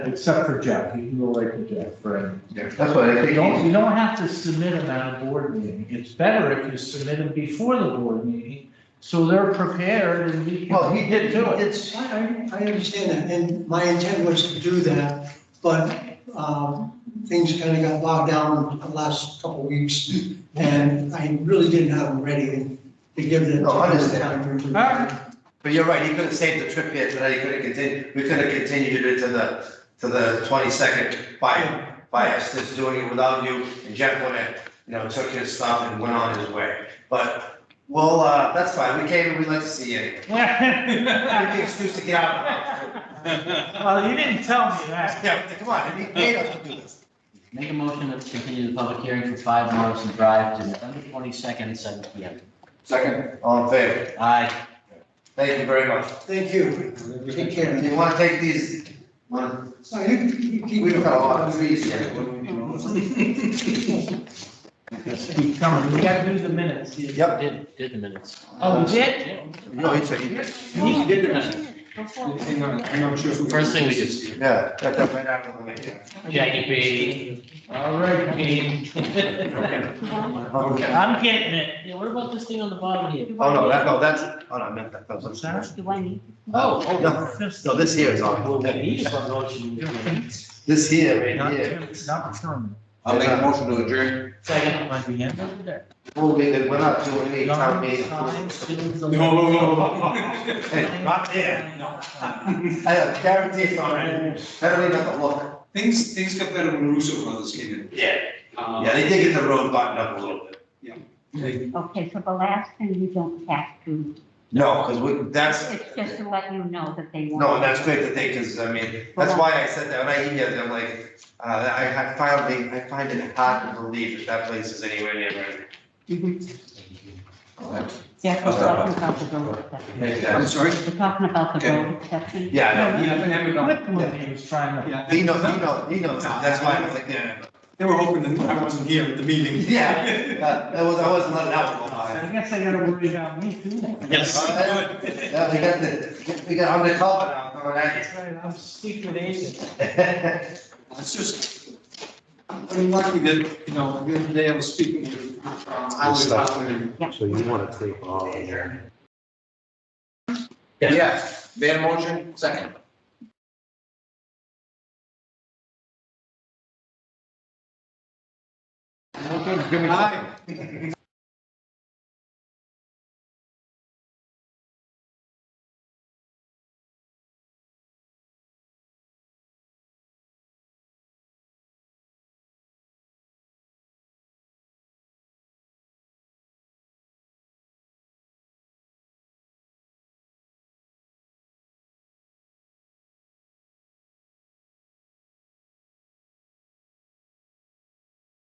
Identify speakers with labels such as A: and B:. A: Except for Jeff, you can go right to Jeff, right?
B: That's what I
A: You don't,
B: think.
A: you don't have to submit them at a board meeting. It's better if you submit them before the board meeting, so they're prepared and we
B: Well,
A: can
B: he did,
A: get
B: do
A: to it.
B: it.
C: I, I- I understand that, and my intent was to do that, but, um, things kind of got bogged down the last couple of weeks, and I really didn't have them ready to give them.
B: No, I understand.
A: Alright.
B: But you're right, he could have saved the trip here tonight, he could have continued, we could have continued it to the, to the twenty-second by, by us just doing it without you, and Jeff would have, you know, took his stuff and went on his way. But, well, uh, that's fine, we came and we'd like to see you. anyway. Give me the excuse to get out.
A: Well, you didn't tell me that.
B: Yeah, come on, he paid us to do this.
D: Make a motion to continue the public hearing for five Morrison Drive to November twenty-second, seven P M.
B: Second. All in favor,
D: Aye.
B: thank you very much.
C: Thank you. Take
B: Do
C: care.
B: you wanna take these? One,
C: So you, you keep.
B: we've got a lot of trees here.
A: Keep coming. We gotta do the minutes.
B: Yep.
D: Did, did the minutes.
A: Oh, we did?
B: No, it's a,
D: You did the minutes. First thing we did,
B: yeah, that, that right after the meeting.
D: Jackie B.
A: All right, Pete.
B: Okay.
D: I'm getting it. Yeah, what about this thing on the bottom here?
B: Oh, no, that, no, that's, oh, no, I meant that, that was.
A: What's that?
E: Do I need?
D: Oh, oh.
B: No, no, this here is
D: Well,
B: on,
D: we need a motion.
B: this here,
A: Not
B: right here.
A: Tim- Not Sherman.
F: I'll make a motion to adjourn.
D: Second.
A: Might be him over there.
B: Moving, that we're not doing any town meeting. Hey, not there. I have guarantees on it, I don't even have to look.
G: Things, things got better when Russo brothers came in.
B: Yeah,
G: Um,
B: yeah, they did get the road buttoned up a little bit.
G: they-
E: Okay, so the last thing you don't have to,
B: No, because we, that's,
E: it's just to let you know that they want.
B: No, and that's great that they, because I mean, that's why I said that, when I emailed them, like, uh, I had finally, I find it hard to believe that that place is anywhere near ready.
E: Mhm. Yeah, we're talking about the road exception.
G: I'm sorry?
E: We're talking about the road exception.
B: Yeah,
G: Yeah, but they were-
A: Whitmore, he was trying to.
G: yeah.
B: no, he knows, he knows, he knows, that's why I was like, yeah,
G: They were hoping that I wasn't here at the meeting.
B: yeah, that, that was, I wasn't letting that one go by.
A: I guess I gotta worry about me too.
D: Yes.
B: Yeah, we got the, we got, I'm the culprit now, I'm coming at
A: That's right, I'm secret agent.
B: you.
G: It's just, I'm lucky that, you know, the other day I was speaking with, uh, Highway Department.
H: So you want to take all of your
F: Yes, Van motion, second.
G: Hi.